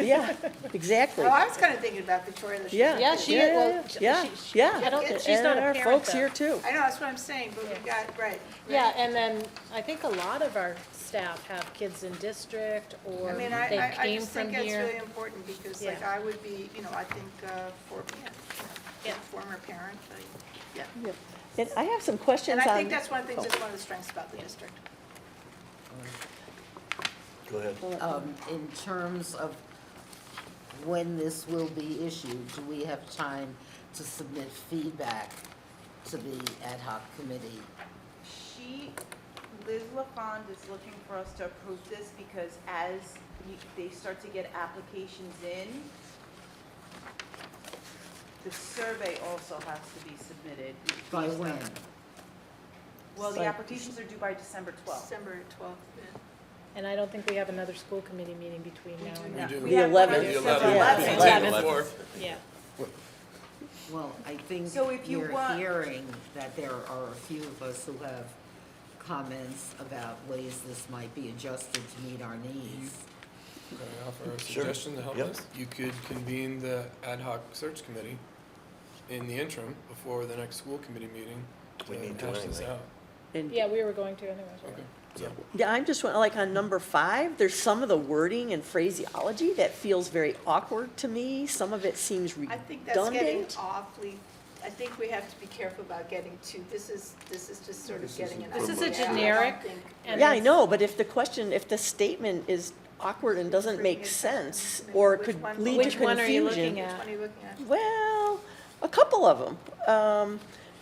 yeah, exactly. Oh, I was kind of thinking about Victoria the Yeah. Yeah, she- yeah, well, yeah, she- Yeah, she- she- yeah. I don't thi- she's And not a our parent, folks though. here too. I know, that's what I'm saying, but we've got, right. Yeah, and then I think a lot of our staff have kids in district or I mean, I, they I, I came just think from that's really here. important, because like, Yeah. I would be, you know, I think, uh, for, yeah, being a Yeah. former parent, like, yeah. Yeah. And I have some questions And on. I think that's one of the things, oh. that's one of the strengths about the district. Go ahead. Um, in terms of when this will be issued, do we have time to submit feedback to the ad hoc committee? She, Liz LaFond is looking for us to approve this because as you- they start to get applications in, the survey also has to be submitted. By when? Well, the By- applications are due by December 12th. December twelfth, yeah. And I don't think we have another school committee meeting between now and then. do. We The have one on 11th. The December 11th. Yeah. 11th. Eleven. Eleven. Yeah, Well, I think So if you you're want- hearing that there are a few of us who have comments about ways this might be adjusted to meet our needs. Can I offer a Sure. suggestion to help Yep. us? You could convene the ad hoc search committee in the interim before the next school committee meeting We need to to hash this anyway. out. and- yeah, we were going to anyways. Okay. Yeah. Yeah, I'm just, wa- like, on number five, there's some of the wording and phraseology that feels very awkward to me. Some of it seems I think that's getting redundant. awfully, I think we have to be careful about getting too, this is, this is just sort of getting an. This is idea. a I don't generic- think- And Yeah, I it's- know, but if the question, if the statement is awkward and doesn't make sense, or Which could one- lead to Which one are you looking Which confusion. Yeah. one are you looking at? Well, a couple of them. Um,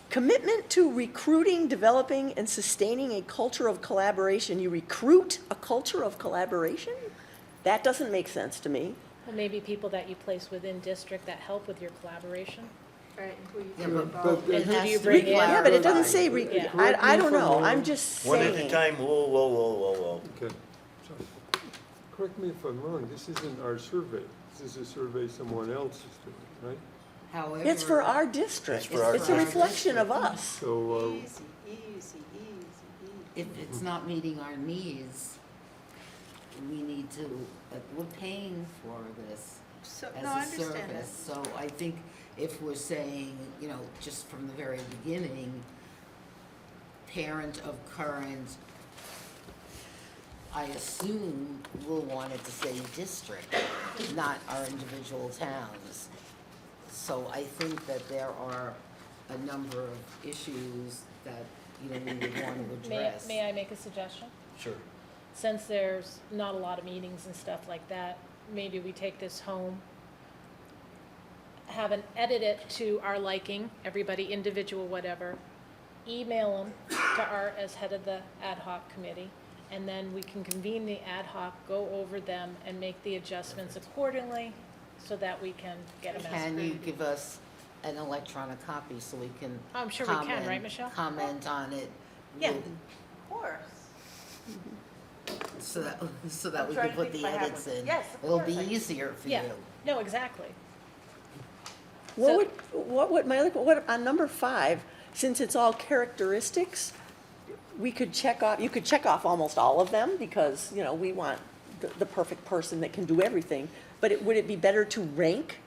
commitment to recruiting, developing, and sustaining a culture of collaboration. You recruit a culture of collaboration? That doesn't make sense to me. Well, maybe people that you place within district that help with your collaboration. Right, who you Yeah, do but- involve. but it And who do has you to bring be in? Yeah, but it doesn't say, clarified. re- Yeah. I, I don't know, I'm just One at a saying. time, whoa, whoa, whoa, whoa, whoa. Okay, so, correct me if I'm wrong, this isn't our survey. This is a survey someone else is doing, right? However. It's for our district, It's for our it's a district. reflection of us. So, uh, Easy, easy, easy, easy. if it's not meeting our needs, we need to, uh, we're paying for this So, no, I as a understand that. service. So I think if we're saying, you know, just from the very beginning, parent of current, I assume will want it to say district, not our individual towns. So I think that there are a number of issues that, you know, we would want to May, address. may I make a suggestion? Sure. Since there's not a lot of meetings and stuff like that, maybe we take this home, have an edit it to our liking, everybody individual, whatever, email them to Art as head of the ad hoc committee, and then we can convene the ad hoc, go over them, and make the adjustments accordingly, so that we can get them out. Can you give us an electronic copy so we can? Oh, I'm sure we can, right, comment- Michelle? Comment on it. Yeah. with- Of course. So that, so that I'm we trying can to put think the if I have edits one. in. Yes, of It'll course be I can. easier for Yeah, you. no, exactly. What So- would, what would, my, other- what, on number five, since it's all characteristics, we could check off, you could check off almost all of them, because, you know, we want the, the perfect person that can do everything. But it, would it be better to rank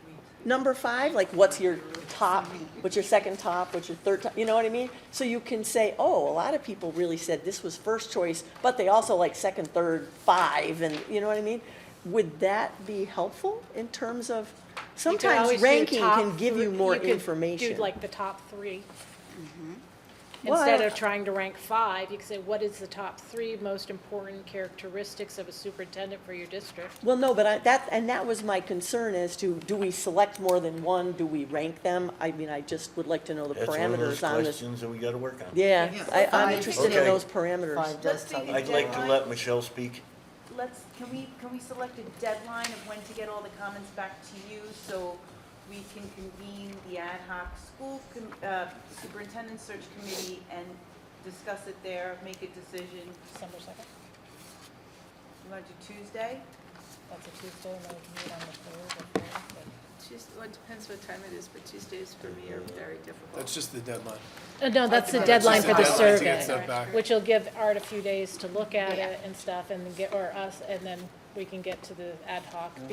number five, like what's your top, what's your second top, what's your third top, you know what I mean? So you can say, oh, a lot of people really said this was first choice, but they also like second, third, five, and, you know what I mean? Would that be helpful in terms of, You could sometimes always do ranking top can give you three- more could do, information. Mm-hmm. like the top three. Well, Instead I- of trying to rank five, you could say, what is the top three most important characteristics of a superintendent for your district? Well, no, but I, that, and that was my concern as to, do we select more than one? Do we rank them? I mean, I just would like to know the That's one of those parameters on this. questions that we gotta work on. Yeah, Yeah. I, I'm Five. interested in Okay. those Five parameters. does Let's tell make you a I'd like to deadline. let Michelle speak. Let's, can we, can we select a deadline of when to get all the comments back to you so we can convene the ad hoc school com- uh, superintendent search committee and discuss it there, make a decision? December 2nd, You want to do Tuesday? that's a Tuesday, and then we can meet on the 3rd or 4th. but- Tuesday, well, it depends what time it is, but Tuesdays for me are very That's difficult. just the deadline. Uh, No, that's the That's deadline just for the deadline to survey, get stuff back. which will give Art a few days to look at it and stuff, and then get, or us, and then we can get to the ad hoc